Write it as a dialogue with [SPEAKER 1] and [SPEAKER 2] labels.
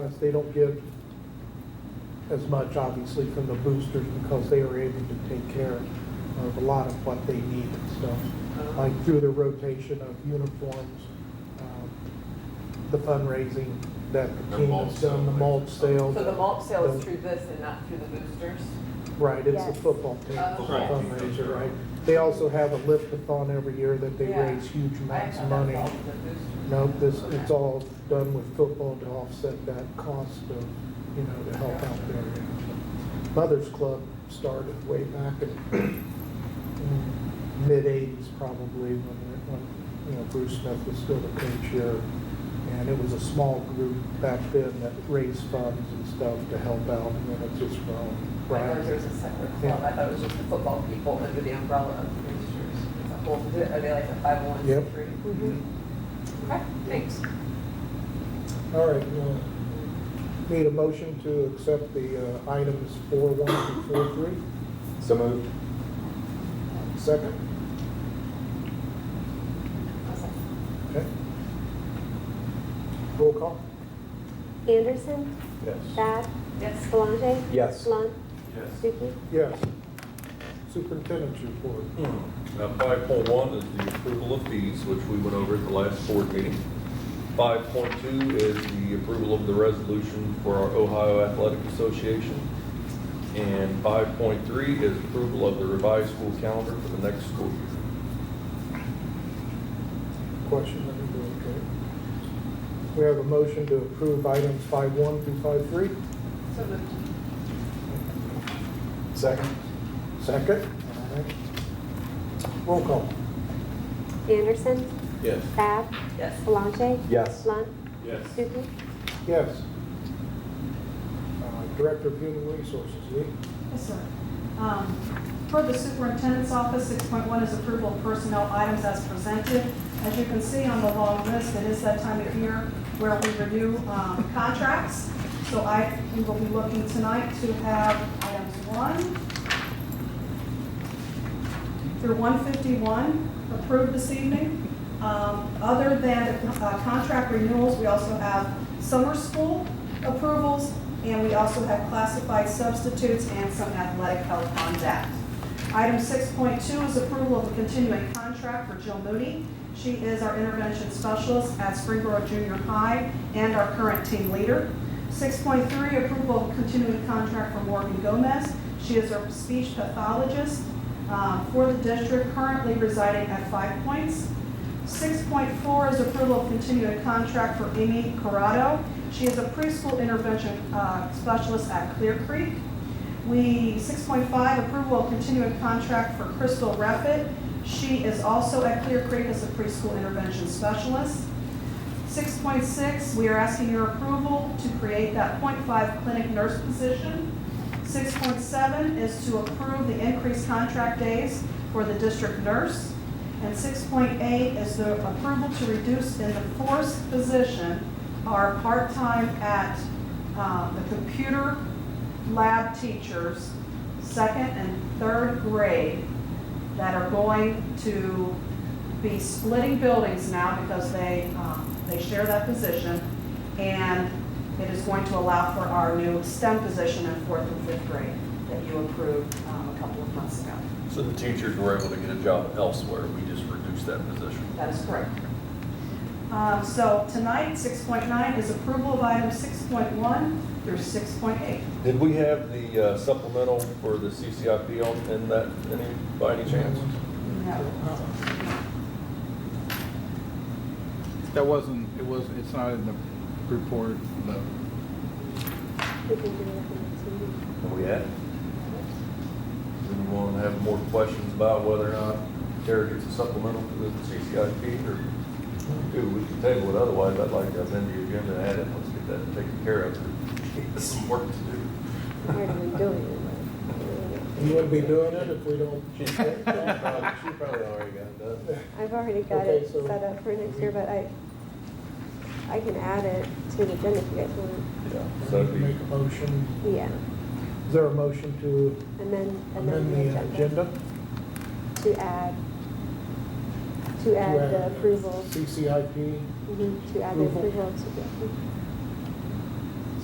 [SPEAKER 1] Yes, They don't get as much, obviously, from the boosters because they are able to take care of a lot of what they need and stuff. Like through the rotation of uniforms, um, the fundraising that the
[SPEAKER 2] Their
[SPEAKER 1] team
[SPEAKER 2] mulch
[SPEAKER 1] has done, the
[SPEAKER 2] sale.
[SPEAKER 1] mulch sale.
[SPEAKER 3] So the mulch sale is through this and not through the boosters?
[SPEAKER 1] Right, it's the
[SPEAKER 4] Yes.
[SPEAKER 1] football team
[SPEAKER 3] Oh.
[SPEAKER 2] Right.
[SPEAKER 1] fundraiser, right? They also have a lift-a-thon every year that they
[SPEAKER 3] Yeah.
[SPEAKER 1] raise huge
[SPEAKER 3] I
[SPEAKER 1] amounts
[SPEAKER 3] thought
[SPEAKER 1] of
[SPEAKER 3] that
[SPEAKER 1] money.
[SPEAKER 3] was all the boosters.
[SPEAKER 1] No, this, it's
[SPEAKER 3] Okay.
[SPEAKER 1] all done with football to offset that cost of, you know, to help out there. Mothers Club started way back in mid-eighties probably when, when, you know, Bruce Smith was still the coach here. And it was a small group back then that raised funds and stuff to help out and then it's just grown.
[SPEAKER 3] I know
[SPEAKER 1] Right?
[SPEAKER 3] there's a separate club, I thought it was just the football people under the umbrella of the boosters. It's a whole, are they like a five oh one
[SPEAKER 1] Yep.
[SPEAKER 3] C three?
[SPEAKER 4] Mm-hmm.
[SPEAKER 3] Okay, thanks.
[SPEAKER 1] All right, well, need a motion to accept the uh, items four one through four three?
[SPEAKER 2] So moved.
[SPEAKER 1] Second? Okay. Roll call?
[SPEAKER 4] Anderson,
[SPEAKER 2] Yes.
[SPEAKER 4] Bab,
[SPEAKER 3] Yes.
[SPEAKER 4] Solange.
[SPEAKER 2] Yes.
[SPEAKER 4] Lunt,
[SPEAKER 2] Yes.
[SPEAKER 4] Stuckey.
[SPEAKER 1] Yes. Superintendent's report.
[SPEAKER 5] Hmm. Now, 5.1 is the approval of fees, which we went over at the last board meeting. 5.2 is the approval of the resolution for our Ohio Athletic Association. And 5.3 is approval of the revised school calendar for the next school year.
[SPEAKER 1] Question number two, okay. We have a motion to approve items five one through five three.
[SPEAKER 3] So moved.
[SPEAKER 1] Second. Second? All right. Roll call?
[SPEAKER 4] Anderson,
[SPEAKER 5] Yes.
[SPEAKER 4] Bab,
[SPEAKER 3] Yes.
[SPEAKER 4] Solange.
[SPEAKER 2] Yes.
[SPEAKER 4] Lunt,
[SPEAKER 5] Yes.
[SPEAKER 4] Stuckey.
[SPEAKER 1] Yes. Uh, Director of Human Resources, Lee?
[SPEAKER 6] Yes, sir. Um, Per the superintendent's office, 6.1 is approval of personnel items as presented. As you can see on the long list, it is that time of year where we renew um, contracts. So I, we will be looking tonight to have items 1 through 151 approved this evening. Um, Other than the uh, contract renewals, we also have summer school approvals, and we also have classified substitutes and some athletic health on that. Item 6.2 is approval of a continuing contract for Jill Moody. She is our intervention specialist at Springboro Junior High and our current team leader. 6.3, approval of continuing contract for Morgan Gomez. She is our speech pathologist um, for the district currently residing at Five Points. 6.4 is approval of continuing contract for Amy Corrado. She is a preschool intervention uh, specialist at Clear Creek. We, 6.5, approval of continuing contract for Crystal Rapid. She is also at Clear Creek as a preschool intervention specialist. 6.6, we are asking your approval to create that .5 clinic nurse position. 6.7 is to approve the increased contract days for the district nurse. And 6.8 is the approval to reduce in the force position our part-time at uh, the computer lab teachers, second and third grade, that are going to be splitting buildings now because they, um, they share that position. And it is going to allow for our new STEM position in fourth and fifth grade that you approved um, a couple of months ago.
[SPEAKER 5] So the teachers were able to get a job elsewhere, we just reduced that position.
[SPEAKER 6] That is correct. Um, So tonight, 6.9 is approval of items 6.1 through 6.8.
[SPEAKER 5] Did we have the uh, supplemental for the CCIP on, in that, any, by any chance?
[SPEAKER 6] No.
[SPEAKER 7] That wasn't, it was, it's not in the report, no.
[SPEAKER 4] We can do it at the next meeting.
[SPEAKER 5] Oh, yeah? Anyone have more questions about whether or not Tara gets a supplemental to the CCIP or? Dude, we can table it, otherwise I'd like to amend the agenda and add it, let's get that taken care of. There's Some work to do.
[SPEAKER 4] We're already doing uh, it.
[SPEAKER 1] You wouldn't be doing it if we don't.
[SPEAKER 5] probably already got it done.
[SPEAKER 4] I've already got
[SPEAKER 1] Okay,
[SPEAKER 4] it
[SPEAKER 1] so-
[SPEAKER 4] set up for next year, but I, I can add it to the agenda if you guys want.
[SPEAKER 5] Yeah, so it'd be,
[SPEAKER 1] Make a motion.
[SPEAKER 4] Yeah,
[SPEAKER 1] Is there a motion to
[SPEAKER 4] and then, and
[SPEAKER 1] amend
[SPEAKER 4] then
[SPEAKER 1] the agenda?
[SPEAKER 4] to add, to
[SPEAKER 1] To
[SPEAKER 4] add the approval,
[SPEAKER 1] CCIP.
[SPEAKER 4] Mhm, to add the
[SPEAKER 1] Approval.
[SPEAKER 4] approval. to-